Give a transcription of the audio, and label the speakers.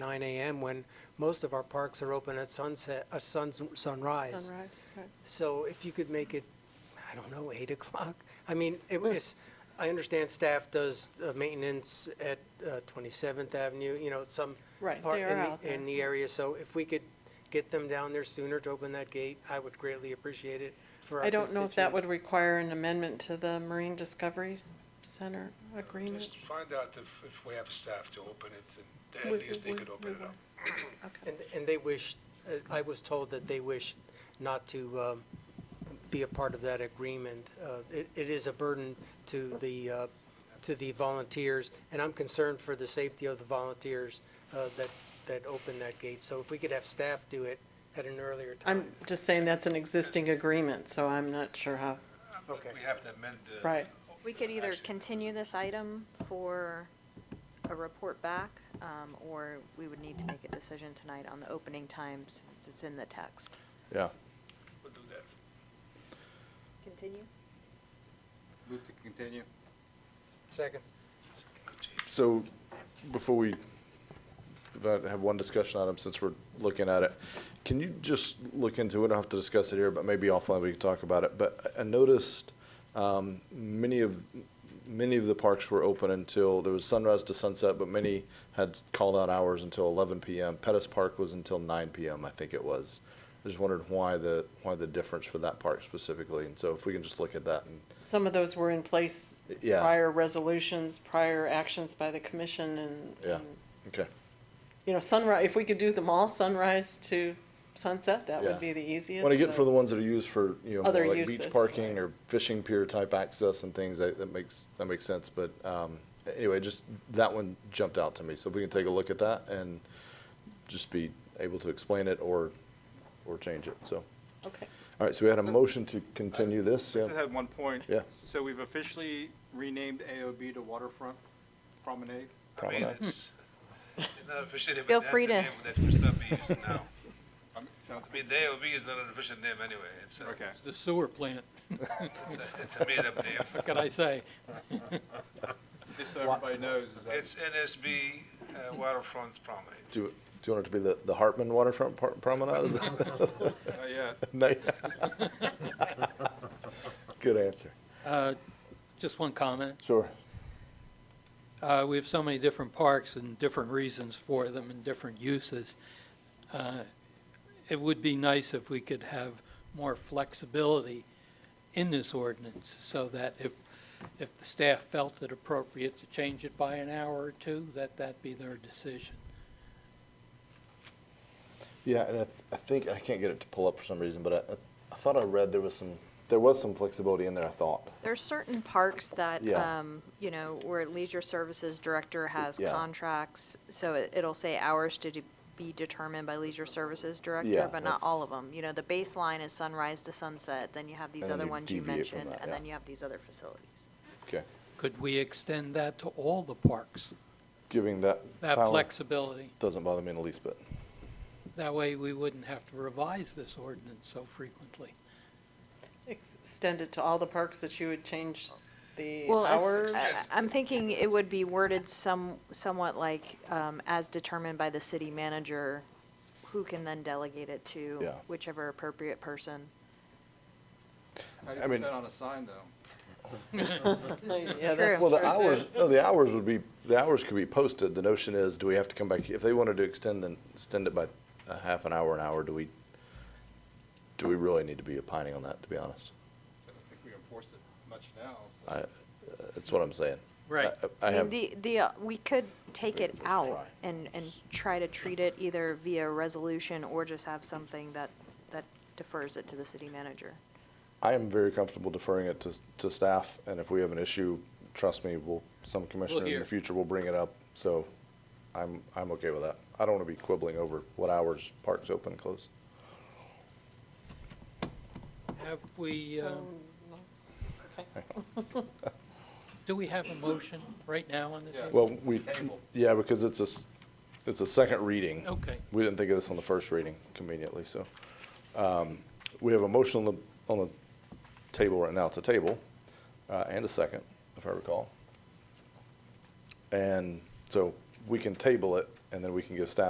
Speaker 1: 9 AM when most of our parks are open at sunset, uh, suns- sunrise.
Speaker 2: Sunrise, right.
Speaker 1: So if you could make it, I don't know, 8 o'clock? I mean,
Speaker 2: Hmm.
Speaker 1: it was, I understand staff does uh, maintenance at uh, 27th Avenue, you know, some
Speaker 2: Right,
Speaker 1: part
Speaker 2: they
Speaker 1: in
Speaker 2: are
Speaker 1: the-
Speaker 2: out there.
Speaker 1: In the area, so if we could get them down there sooner to open that gate, I would greatly appreciate it for our
Speaker 2: I don't know if that would
Speaker 1: constituents.
Speaker 2: require an amendment to the Marine Discovery Center agreement.
Speaker 3: Just find out if, if we have staff to open it, and
Speaker 2: We-
Speaker 3: at least they
Speaker 2: we-
Speaker 3: could
Speaker 2: we
Speaker 3: open it up.
Speaker 2: will. Okay.
Speaker 1: And, and they wish, uh, I was told that they wish not to um, be a part of that agreement. Uh, It, it is a burden to the, uh, to the volunteers, and I'm concerned for the safety of the volunteers uh, that, that open that gate. So if we could have staff do it at an earlier
Speaker 2: I'm
Speaker 1: time.
Speaker 2: just saying that's an existing agreement, so I'm not sure how,
Speaker 3: But
Speaker 1: Okay.
Speaker 3: We have to amend the.
Speaker 2: Right.
Speaker 4: We could either
Speaker 3: action.
Speaker 4: continue this item for a report back, um, or we would need to make a decision tonight on the opening time since it's in the text.
Speaker 5: Yeah,
Speaker 3: We'll do that.
Speaker 4: Continue?
Speaker 6: Move to continue.
Speaker 1: Second.
Speaker 5: so before we about have one discussion item, since we're looking at it, can you just look into, we don't have to discuss it here, but maybe offline we can talk about it, but I I noticed um, many of, many of the parks were open until, there was sunrise to sunset, but many had called out hours until eleven PM. Pettus Park was until nine PM, I think it was. I just wondered why the, why the difference for that park specifically, and so if we can just look at that and
Speaker 2: some of those were in place
Speaker 5: Yeah.
Speaker 2: prior resolutions, prior actions by the commission and,
Speaker 5: Yeah.
Speaker 2: and,
Speaker 5: Okay.
Speaker 2: you know, sunrise, if we could do them all sunrise to sunset, that
Speaker 5: Yeah.
Speaker 2: would be the easiest.
Speaker 5: When I get
Speaker 2: but-
Speaker 5: for the ones that are used for, you know,
Speaker 2: Other
Speaker 5: more like
Speaker 2: uses,
Speaker 5: beach parking or fishing pier type access and things, that, that makes, that makes sense, but, um, anyway, just, that one jumped out to me, so if we can take a look at that and just be able to explain it or, or change it, so.
Speaker 2: Okay.
Speaker 5: All right, so we had a motion to continue this,
Speaker 6: I just
Speaker 5: yeah,
Speaker 6: had one point.
Speaker 5: Yeah.
Speaker 6: So we've officially renamed AOB to Waterfront Promenade.
Speaker 3: I mean,
Speaker 5: Promenade.
Speaker 3: it's, it's not official name,
Speaker 4: Feel
Speaker 3: but that's
Speaker 4: free
Speaker 3: the
Speaker 4: to-
Speaker 3: name that we're still being used now.
Speaker 6: Um, Sounds
Speaker 3: I mean, the AOB is not an official name anyway, it's a,
Speaker 6: Okay.
Speaker 7: The sewer plant,
Speaker 3: it's a- it's a made-up name.
Speaker 7: what can I say?
Speaker 6: Just so everybody knows, is that
Speaker 3: It's NSB uh, Waterfront Promenade.
Speaker 5: do, do you want it to be the, the Hartman Waterfront Par- Promenade? Is that- No.
Speaker 6: not yet.
Speaker 5: Good answer,
Speaker 7: Uh, Just one comment.
Speaker 5: sure,
Speaker 7: Uh, We have so many different parks and different reasons for them and different uses. Uh, It would be nice if we could have more flexibility in this ordinance so that if, if the staff felt it appropriate to change it by an hour or two, that that be their decision.
Speaker 5: Yeah, and I, th- I think I can't get it to pull up for some reason, but I- I, I thought I read there was some there was some flexibility in there. I thought.
Speaker 4: There are certain parks that,
Speaker 5: Yeah.
Speaker 4: um, you know, where Leisure Services Director has
Speaker 5: Yeah.
Speaker 4: contracts, so it- it'll say hours to de- be determined by Leisure Services
Speaker 5: Yeah,
Speaker 4: Director, but not all
Speaker 5: that's-
Speaker 4: of them. You know, the baseline is sunrise to sunset, then you have these
Speaker 5: And then
Speaker 4: other
Speaker 5: you
Speaker 4: ones you
Speaker 5: deviate from
Speaker 4: mentioned,
Speaker 5: that,
Speaker 4: and
Speaker 5: yeah.
Speaker 4: then you have these other facilities.
Speaker 5: Okay,
Speaker 7: Could we extend that to all the parks?
Speaker 5: giving that
Speaker 7: That
Speaker 5: power
Speaker 7: flexibility?
Speaker 5: doesn't bother me in the least bit.
Speaker 7: That way, we wouldn't have to revise this ordinance so frequently.
Speaker 2: Extend it to all the parks that you would change the
Speaker 4: Well, as- uh,
Speaker 2: hours.
Speaker 4: I- I'm thinking it would be worded some, somewhat like, um, as determined by the city manager, who can then delegate it to
Speaker 5: Yeah.
Speaker 4: whichever appropriate person.
Speaker 6: How do
Speaker 5: I
Speaker 6: you
Speaker 5: mean-
Speaker 6: put that on a sign, though?
Speaker 2: Yeah, that's
Speaker 4: True.
Speaker 5: well,
Speaker 2: true,
Speaker 5: the
Speaker 2: too.
Speaker 5: hours no, the hours would be the hours could be posted. The notion is, do we have to come back if they wanted to extend and extend it by a half an hour, an hour? Do we do we really need to be opining on that? To be honest,
Speaker 6: I don't think we enforce it much now, so.
Speaker 5: I, Uh, that's what I'm saying.
Speaker 7: Right.
Speaker 5: I, I
Speaker 4: I mean,
Speaker 5: have
Speaker 4: the, the, uh, we could take it
Speaker 5: Very first try.
Speaker 4: out and, and try to treat it either via resolution or just have something that, that defers it to the city manager.
Speaker 5: I am very comfortable deferring it to, to staff, and if we have an issue, trust me, we'll, some commissioner in
Speaker 7: hear.
Speaker 5: the future will bring it up, so I'm, I'm okay with that. I don't want to be quibbling over what hours parks open, close.
Speaker 7: Have we, uh, do we have a motion right now on the
Speaker 6: Yeah.
Speaker 7: table?
Speaker 5: Well, we,
Speaker 6: Table.
Speaker 5: yeah, because it's a, s- it's a second reading.
Speaker 7: Okay.
Speaker 5: We didn't think of this on the first reading conveniently, so. um, We have a motion on the, on the table right now, to table, uh, and a second, if I recall. And so we can table it, and then we can give staff